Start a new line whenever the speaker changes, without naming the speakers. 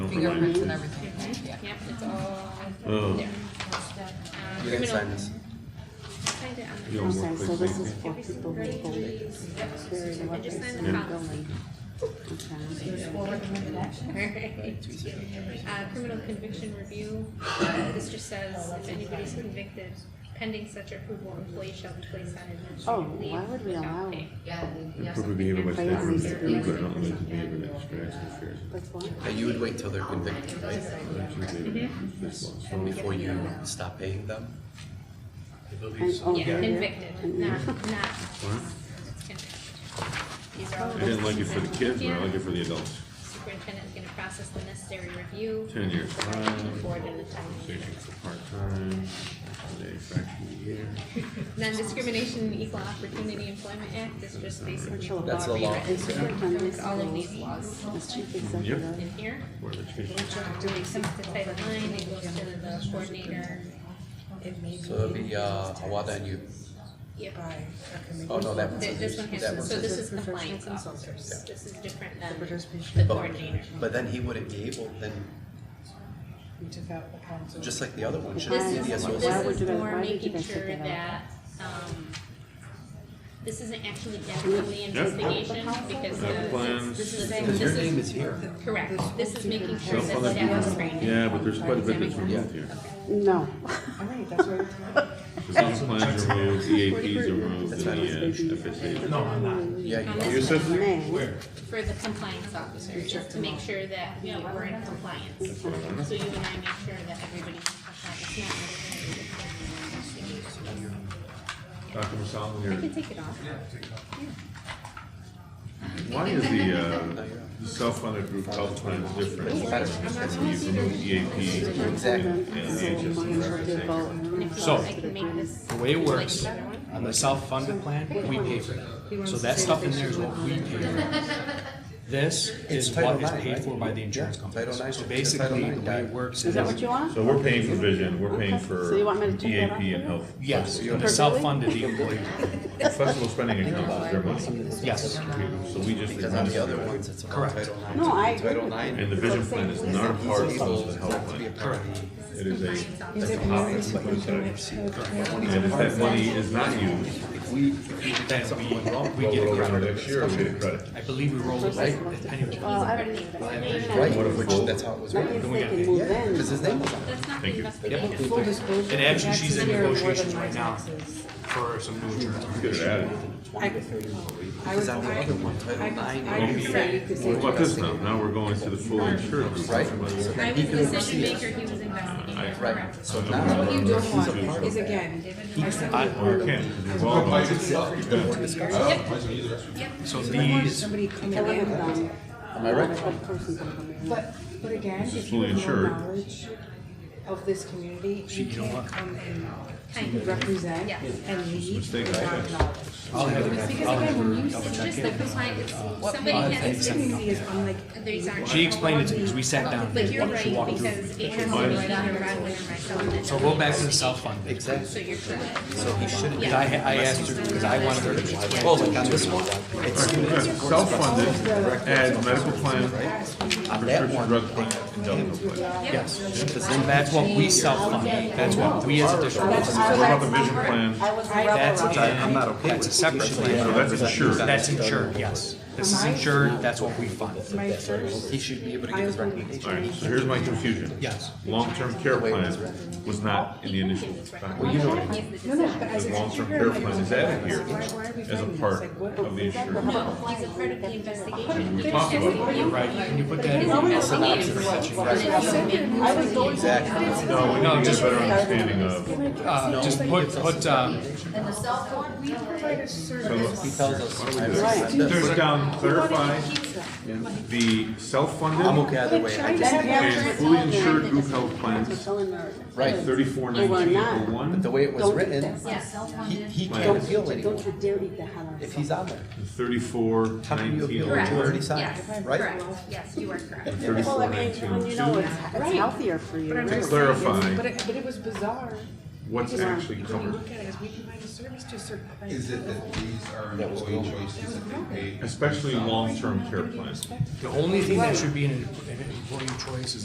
fingerprints and everything, yeah.
Yep, it's all
Oh.
there. Um,
You guys
criminal-
sign this.
Sign it on
You
there.
don't work
Okay, so this
with
is
me.
for people who hold it, carry the
Just
weapons
sign
in
the
the
front.
building. Okay.
Uh, criminal conviction review, uh, this just says if anybody's convicted pending such approval, employee shall be placed on
Oh,
administrative leave
why would we
without
allow,
pay.
Improve the behavior by
Crazy
stating that
security.
good and unlawful behavior that distracts and fears.
that's why?
Uh, you would wait till they're convicted, right?
Mhm.
Before you stop paying them?
And, oh,
Yeah,
there it is.
convicted, not, not. convicted. These are all
I didn't like it for the kids, but I like it for the adults.
Superintendent is gonna process the necessary review.
Ten years.
Forward in the time.
Station for part-time, holiday factory year.
Non-discrimination and Equal Opportunity Employment Act is just basically the
That's
law
the law.
rewritten
Superintendent's
from all of these laws
As chief executive,
in here.
Board of Education.
It comes to Title IX, it goes to the coordinator.
So that'd be, uh, Awada and you.
Yep.
Oh, no, that
Th- This one
that
has,
one's-
so this is
Professional
compliance officers.
consultants.
This is different than the
participation.
coordinator.
But then he wouldn't be able, then,
We took out the council.
just like the other one,
This
shouldn't
is,
the
this
DSO.
Why would
is
you guys-
more
why did you
making
guys take
sure
it out?
that, um, this isn't actually definitely investigation because the.
Have plans.
this is-
Because your
this is-
name is here.
Correct, this is making sure
Some
that
other
staff is
people-
trained.
Yeah, but there's quite a bit that's removed here.
no.
All right, that's what
Design plans E are removed, EAPs are removed, and the uh, FSAs.
No, I'm not.
Yeah, you-
On
You
this
said-
one,
Where?
Um, for the compliance officer, just to make sure that we were in compliance. So you and I make sure that everybody's in compliance. It's not-
Dr. Masalim,
I can
here.
take it off.
why is the, uh,
no, you're not.
the self-funded group health plan different?
That's-
You remove EAP
Exactly.
E and E
So
the
mine should be
HSA.
about-
So-
I can make this.
The way it
like
works,
another one.
on the self-funded plan, we pay for that. So that stuff in there is what we pay for. This is what is paid for by the insurance company.
Title IX,
So
Title
basically,
IX
the way it works
Is
is,
that what you want?
So we're paying for vision, we're paying for
So you want me to check that off
EAP and
for you?
health.
yes,
Perfectly.
the self-funded, the employee,
Flexible spending accounts is their money.
yes.
So we just
Because on
remove
the other
it.
ones, it's about
Correct.
Title IX.
No, I agree
Title
with
IX.
And the vision plan is not a part of the health
To be a
plan.
part of the-
It is a,
Compliance
it's a policy to put aside. And if that money is not used,
If we, if we did
Then
something wrong,
we, we get a
roll it over
credit.
next year, we get a credit.
I believe we roll it back, depending
Well, I don't need that.
right, which, that's how it was
That means
written.
they can move in.
Because his name was on it.
That's not the
Thank you.
investigation.
Full disclosure.
And actually, she's
taxes
in
here are more than
negotiations
my
right now.
taxes.
for some new insurance.
get it added.
I was,
Because on the other
I,
one, Title IX.
I could say, you could say.
What about this now? Now we're going to the full insured group.
Right.
I was the decision maker, he was investigating, correct.
Right, so
What
now,
you don't want is again, I said,
Or you can't, because we've all gone
So
I want
these,
somebody coming
I live
in,
down.
am I right?
That person can come in.
but, but again,
This is
if you
fully
have no
insured.
knowledge of this community, you
you know
can't
what?
come
Kind
and
of.
represent
Yeah.
and lead
Mistake I
without
had.
knowledge.
I'll have it,
Because
I'll
again,
have
when
her
you
double
said
check
Just the
it.
compliance, somebody has
This community is unlike.
These aren't-
She explained it to me, 'cause we sat down,
But
and
you're
she
right,
walked through.
because it has to be either Rodman or myself.
So go back to the self-funded.
So you're correct.
So he shouldn't.
I, I asked her, because I wanted her to.
Oh, like on this one?
Self-funded, add medical plan, prescription drug plan, and dental plan.
Yes, and that's what we self-fund, that's what we as a district,
What about the vision plan?
that's in, that's a separate
So
plan,
that's insured.
that's insured, yes. This is insured, that's what we fund,
My first
He should be able to give his recommendation.
All right, so here's my confusion.
yes.
Long-term care plan was not in the initial document.
No, no, but as
The
a
long-term
teacher,
care
I'm
plan
like,
is added here
why- why are we
as a
fighting?
part
It's like, what-
of the insured.
No, he's a part of the investigation.
We talked about it.
Right, can you put that in?
No,
Exactly.
we need to get a better understanding of,
Uh, just put, put, um,
He tells us. I
Right.
recommend this.
put down, clarify the self-funded.
I'm okay either way. I just,
That
And
guy
fully insured group health plans,
telling her.
right,
thirty-four nineteen oh
the
one,
way it was
Don't do
written,
that.
Yes.
he, he can't
Right.
appeal
Don't you
anymore
dare eat the hell out
if
of
he's on there.
and thirty-four
How can you
nineteen
appeal
oh
what you
one,
already
Correct,
signed,
yes,
right?
correct, yes, you are correct.
and
Well,
thirty-four
I mean,
nineteen oh
when you know it's,
two.
it's healthier for you,
To
really.
But
clarify
it, but it was bizarre.
what's actually
When you
covered,
look at it, as we provide a service to a certain.
Is it that these are employee choices that they pay
especially long-term care plans.
the only thing that should be in an employee choice is